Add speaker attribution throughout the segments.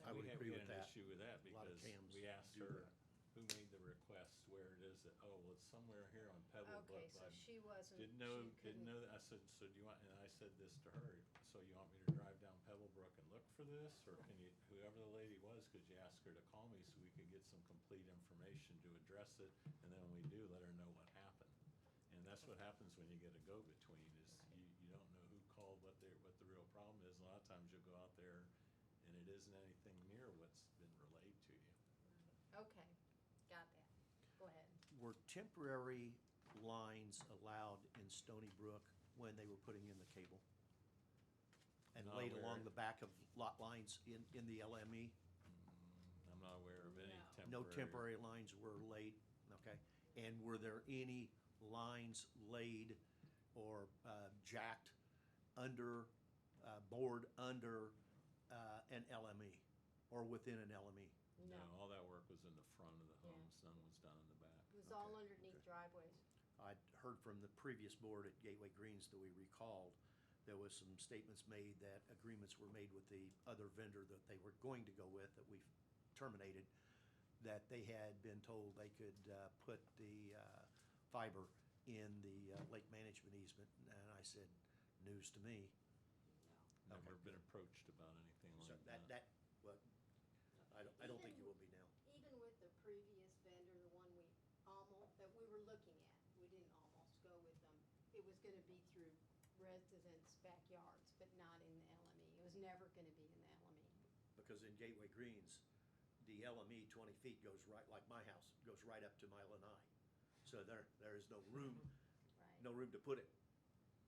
Speaker 1: had an
Speaker 2: that.
Speaker 1: issue with that
Speaker 2: A lot of
Speaker 1: because
Speaker 2: cams
Speaker 1: we asked
Speaker 2: do
Speaker 1: her,
Speaker 2: that.
Speaker 1: who made the request, where it is, that, oh, well, it's somewhere here on Pebble,
Speaker 3: Okay,
Speaker 1: but
Speaker 3: so
Speaker 1: I
Speaker 3: she wasn't, she
Speaker 1: didn't know, didn't
Speaker 3: couldn't-
Speaker 1: know, that. I said, so do you want, and I said this to her, so you want me to drive down Pebblebrook and look for this? Or can you, whoever the lady was, could you ask her to call me so we could get some complete information to address it? And then when we do, let her know what happened. And that's what happens when you get a go-between, is you, you don't know who called, what their, what the real problem is. A lot of times you'll go out there and it isn't anything near what's been relayed to you.
Speaker 3: Okay, got that. Go ahead.
Speaker 2: Were temporary lines allowed in Stony Brook when they were putting in the cable? And
Speaker 1: Not
Speaker 2: laid
Speaker 1: aware.
Speaker 2: along the back of lot lines in, in the LME?
Speaker 1: I'm not aware of any
Speaker 3: No.
Speaker 2: No
Speaker 1: temporary.
Speaker 2: temporary lines were laid, okay? And were there any lines laid or uh, jacked under, uh, bored under uh, an LME or within an E? LME?
Speaker 1: No, all that work was in the front of the
Speaker 3: Yeah.
Speaker 1: homes, none was done in the back.
Speaker 3: It was all
Speaker 2: Okay,
Speaker 3: underneath
Speaker 2: okay.
Speaker 3: driveways.
Speaker 2: I'd heard from the previous board at Gateway Greens that we recalled, there was some statements made that agreements were made with the other vendor that they were going to go with, that we've terminated, that they had been told they could uh, put the uh, fiber in the uh, lake management easement, and I said, news to me.
Speaker 1: Never been approached about anything
Speaker 2: So
Speaker 1: like
Speaker 2: that, that,
Speaker 1: that.
Speaker 2: well, I don't, I don't think you will be now.
Speaker 4: Even with the previous vendor, the one we almost, that we were looking at, we didn't almost go with them. It was gonna be through residents' backyards, but not in the LME. It was never gonna be in the E, LME.
Speaker 2: because in Gateway Greens, the LME twenty feet goes right, like my house, goes right up to my lanai. So there, there is no room,
Speaker 4: Right.
Speaker 2: no room to put it.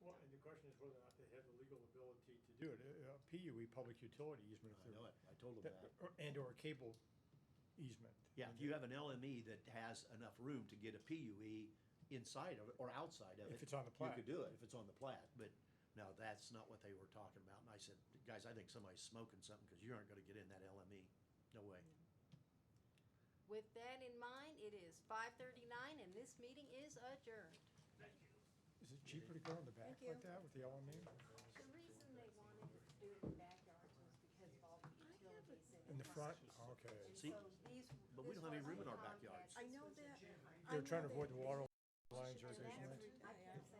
Speaker 5: Well, and the question is whether or not they have the legal ability to do it, Uh, a PUE, E, public utility easement. if
Speaker 2: I
Speaker 5: they're-
Speaker 2: know it, I told them
Speaker 5: that-
Speaker 2: that.
Speaker 5: or- And or cable easement.
Speaker 2: Yeah, if you have an LME that has enough room to get a PUE inside of it or outside of it.
Speaker 5: If it's on the
Speaker 2: You
Speaker 5: plat.
Speaker 2: could do it if it's on the plat, but no, that's not what they were talking about. And I said, guys, I think somebody's smoking something because you aren't gonna get in that LME. No way.
Speaker 3: With that in mind, it is five thirty-nine and this meeting is adjourned.
Speaker 5: Is it cheaper to go in the back like that with the LME
Speaker 4: The reason they wanted us to do it in the backyards was because of all the utilities
Speaker 5: in the front? Okay.
Speaker 4: And
Speaker 2: See,
Speaker 4: so these.
Speaker 2: but we
Speaker 4: this
Speaker 2: don't have any
Speaker 4: was
Speaker 2: room in
Speaker 4: a
Speaker 2: our
Speaker 4: Comcast,
Speaker 2: backyards.
Speaker 4: this
Speaker 6: I know
Speaker 4: was a
Speaker 6: that.
Speaker 4: Generate.
Speaker 6: I
Speaker 5: They're
Speaker 6: know
Speaker 5: trying to
Speaker 6: that
Speaker 5: avoid the water lines or
Speaker 4: And
Speaker 5: something.
Speaker 4: that's
Speaker 5: right?
Speaker 4: re- I can't